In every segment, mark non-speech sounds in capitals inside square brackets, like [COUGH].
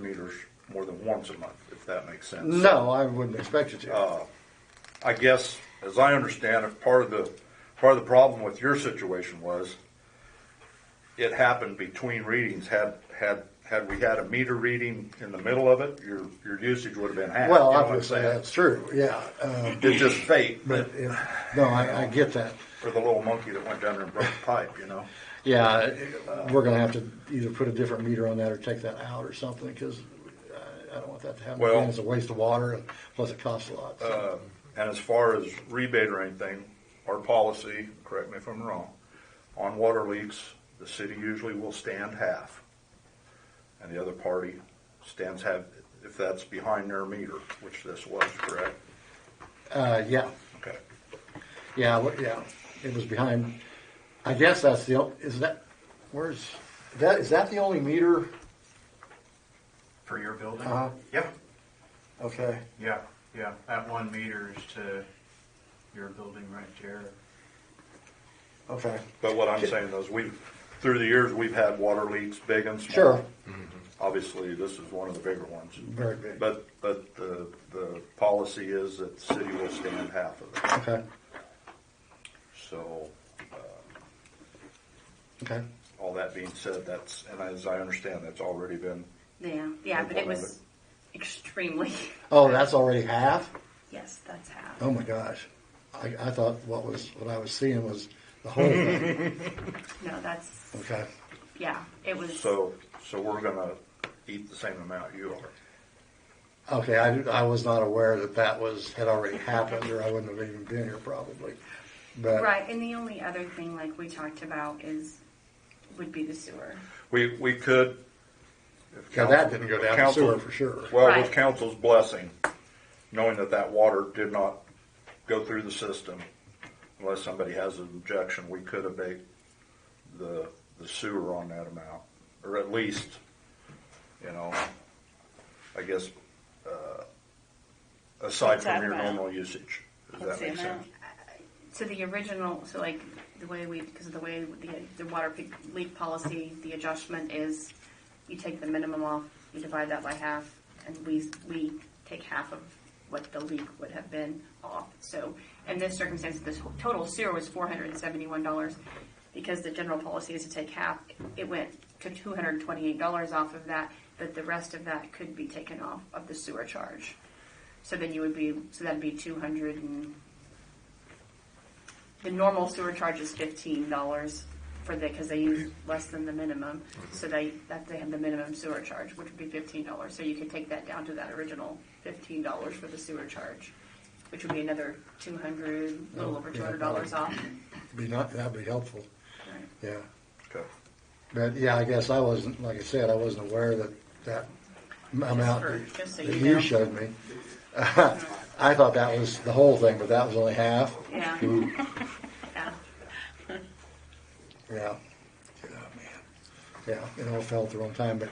meters more than once a month, if that makes sense. No, I wouldn't expect you to. Uh, I guess, as I understand it, part of the, part of the problem with your situation was it happened between readings. Had, had, had we had a meter reading in the middle of it, your, your usage would have been half. you know Well, what I'm obviously, saying? that's true, yeah. uh, It's just fate, But, but if- no, I, I get that. for the little monkey that went down there and broke the pipe, you know? Yeah, uh, we're gonna have to either put a different meter on that or take that out or something, because I don't want that to happen. Well- again. It's a waste of water, and plus it costs a lot. so. Um, And as far as rebate or anything, our policy, correct me if I'm wrong, on water leaks, the city usually will stand half. And the other party stands half, if that's behind their meter, which this was, correct? Uh, yeah, Okay. yeah, what- yeah, it was behind, I guess that's the, o- is that, where's, that, is that the only meter? For your building? Uh-huh. Yeah, Okay, yeah, yeah. That one meter is to your building right there. okay, But what I'm saying is, we've, through the years, we've had water leaks, big and small. sure, Obviously, this is one of the bigger ones. very big, But, but the, the policy is that the city will stand half of it, okay, so. okay. All that being said, that's, and as I understand, that's already been, Yeah, yeah, but it was Implemented. extremely, [LAUGHS] Oh, that's already half? yes, that's half. Oh my gosh. I, I thought what was, what I was seeing was the whole thing. No, that's, Okay. yeah, it was, so, so we're gonna eat the same amount you are. Okay, I, I was not aware that that was, had already happened or I wouldn't have even been here probably. But, right, and the only other thing like we talked about is, would be the sewer. We, we could. if Yeah, that didn't go down the council- sewer for sure. Well, with Right. council's blessing, knowing that that water did not go through the system, unless somebody has an objection, we could abate the, the sewer on that amount, or at least, you know, I guess, uh, aside What's that from your amount? normal usage. Does that What's the make sense? amount? So the original, so like the way we, because of the way the, the water pe- leak policy, the adjustment is you take the minimum off, you divide that by half, and we, we take half of what the leak would have been off. So in this circumstance, the total sewer was four hundred and seventy-one dollars. Because the general policy is to take half, it went to two hundred and twenty-eight dollars off of that, but the rest of that could be taken off of the sewer charge. So then you would be, so that'd be two hundred and the normal sewer charge is fifteen dollars for the, because they use less than the minimum, so they, that they have the minimum sewer charge, which would be fifteen dollars, so you could take that down to that original fifteen dollars for the sewer charge, which would be another two hundred, a little Oh, over yeah, two hundred dollars off. be not, that'd be helpful. Right. Yeah. Okay. But yeah, I guess I wasn't, like I said, I wasn't aware that that m- amount for- that- just so that you you know. showed me. [LAUGHS] I thought that was the whole thing, but that was only half. Yeah. Yeah. Yeah. Yeah, man. Yeah, it all fell at the wrong time, but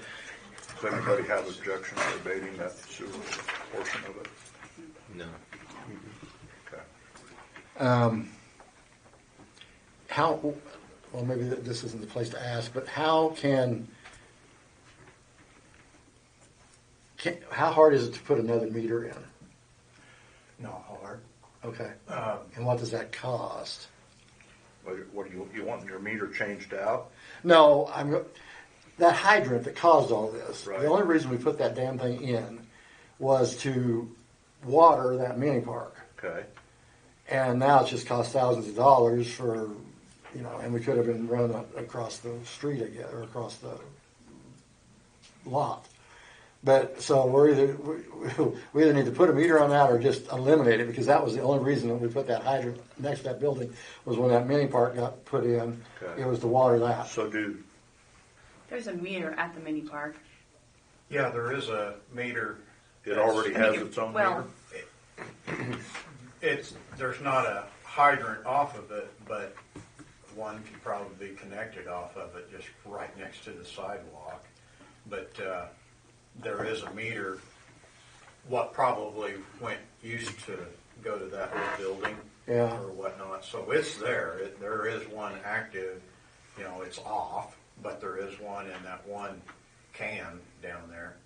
Does anybody have objection to abating that sewer portion of it? No. Okay. how, well, maybe th- this isn't the place to ask, but how can, can, how hard is it to put another meter in? Not hard. Okay. Um, And what does that cost? What- What do you, you want your meter changed out? No, I'm, go- that hydrant that caused all this, Right. the only reason we put that damn thing in was to water that mini park. Okay. And now it's just cost thousands of dollars for, you know, and we could have been running a- across the street again, or across the lot. But, so we're either, we, [LAUGHS] we either need to put a meter on that or just eliminate it, because that was the only reason that we put that hydrant next to that building, was when that mini park got put in, Okay. it was to water that. So do, There's a meter at the mini park. Yeah, there is a meter. it already has its own meter? Well, It's, there's not a hydrant off of it, but one could probably be connected off of it, just right next to the sidewalk. But, uh, there is a meter, what probably went, used to go to that old building. Yeah. Or whatnot, so it's there, it, there is one active, you know, it's off, but there is one in that one can down there.